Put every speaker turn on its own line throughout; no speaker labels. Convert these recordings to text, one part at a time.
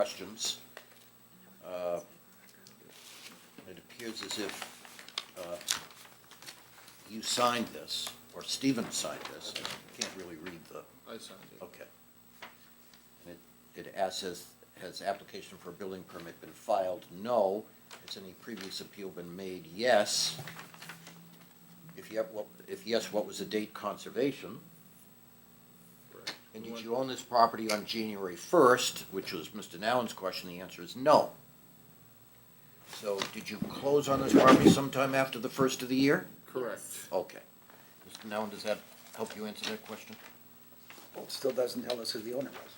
questions. Uh, It appears as if uh, you signed this, or Stephen signed this. I can't really read the,
I signed it.
okay. And it it asks, has, has application for a building permit been filed? No. Has any previous appeal been made? Yes. If you have, what- if yes, what was the date conservation?
Correct.
And
We
did
went-
you own this property on January first, which was Mr. Nowen's question, the answer is no. So did you close on this property sometime after the first of the year?
Correct.
Okay. Mr. Nowen, does that help you answer that question?
Well, it still doesn't tell us who the owner was.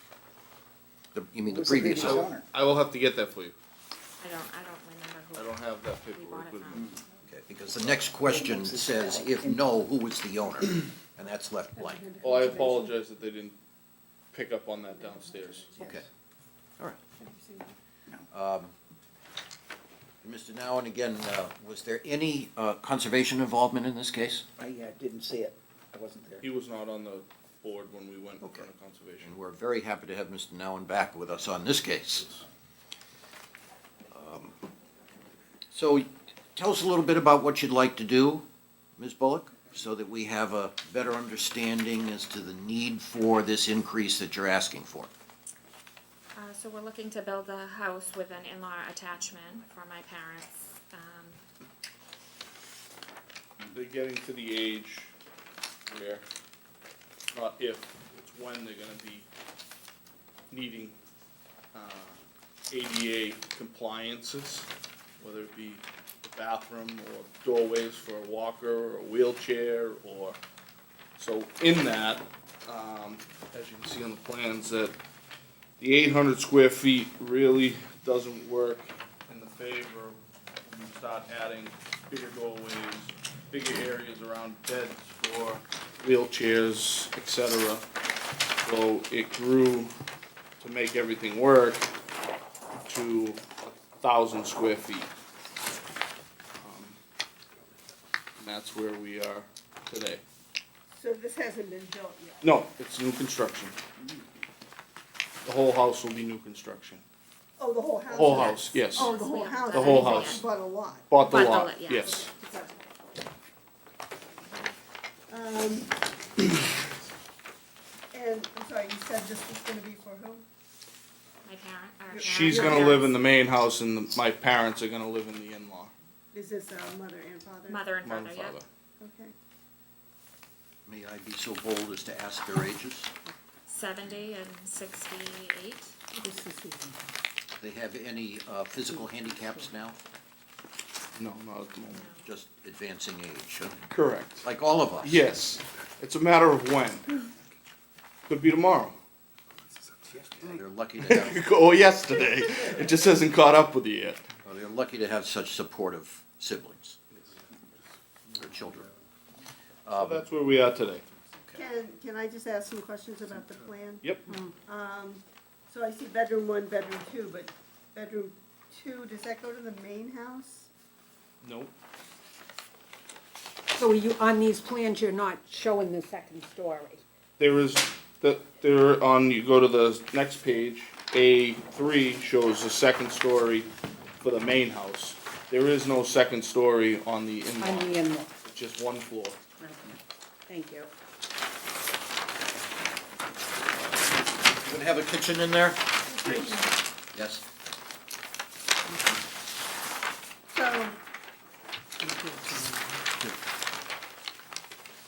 The- You mean the
Who's the
previous
previous
owner?
owner?
I will have to get that for you.
I don't, I don't remember who.
I don't have that
we bought
paperwork
it
with me.
from.
Okay, because the next question says, if no, who was the owner? And that's left blank.
Well, oh, I apologize that they didn't pick up on that downstairs.
Okay, all right. Mr. Nowen, again, uh, was there any uh, conservation involvement in this case?
I uh, didn't see it. I wasn't there.
He was not on the board when we went in front
Okay.
of conservation.
And we're very happy to have Mr. Nowen back with us on this case. Um, So tell us a little bit about what you'd like to do, Ms. Bullock, so that we have a better understanding as to the need for this increase that you're asking for.
Uh, so we're looking to build a house with an in-law attachment for my parents. Um,
They're getting to the age where, not if, it's when they're gonna be needing, uh, ADA compliances, whether it be the bathroom or doorways for a walker or a wheelchair or, so in that, um, as you can see on the plans, that the eight hundred square feet really doesn't work in the favor when you start adding bigger doorways, bigger areas around beds for wheelchairs, et cetera. So it grew to make everything work to a thousand square feet. Um, And Um, that's where we are today.
So this hasn't been built yet?
No, it's new construction. The whole house will be new construction.
Oh, the whole house?
Whole house, yes.
Oh, the whole house?
The
I
whole
thought you
house.
Bought a lot.
Bought the
Bought the
lot,
lot, yeah.
yes.
Um, And, I'm sorry, you said this was gonna be for
My
who?
parent, our parents.
She's gonna live in the main house and the- my parents are gonna live in the in-law,
Is this uh, mother and father?
Mother and
mother and
father, yeah.
father.
Okay.
May I be so bold as to ask their ages?
Seventy and sixty-eight.
They have any uh, physical handicaps now?
No, not at the moment.
Just advancing age, huh?
Correct.
like all of us?
Yes, it's a matter of when. Could be tomorrow,
They're lucky to have
or yesterday. It just hasn't caught up with you yet.
Well, they're lucky to have such supportive siblings, or children.
So that's where we are today.
Can, can I just ask some questions about the plan?
Yep,
So I see bedroom one, bedroom two, but bedroom two, does that go to the main house?
nope.
So you, on these plans, you're not showing the second story?
There is, that, there on, you go to the next page, A three shows the second story for the main house. There is no second story on the
On the uh,
in-law,
in-law?
It's just one floor.
Thank you.
You gonna have a kitchen in there? Yes.
So.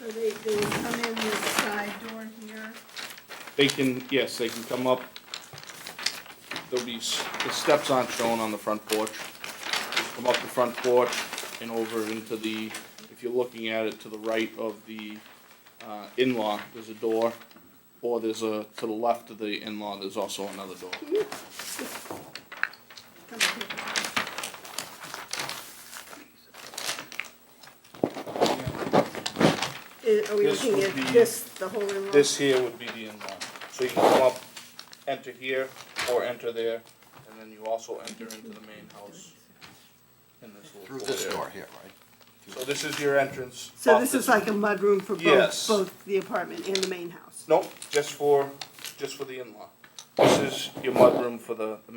So they, they would come in with a side door here,
They can, yes, they can come up. There'll be, s- the steps aren't shown on the front porch. Come up the front porch and over into the, if you're looking at it to the right of the, uh, in-law, there's a door. Or there's a, to the left of the in-law, there's also another door.
come up here. Is- Are we
This
looking
would
at
be-
this, the whole in-law?
This here would be the in-law. So you can come up, enter here, or enter there, and then you also enter into the main house. In this
Through
little court
this
area.
door here, right?
So this is your entrance.
So
off
this is like a mudroom for
Yes.
both, both the apartment and the main house?
Nope, just for, just for the in-law. This is your mudroom for the the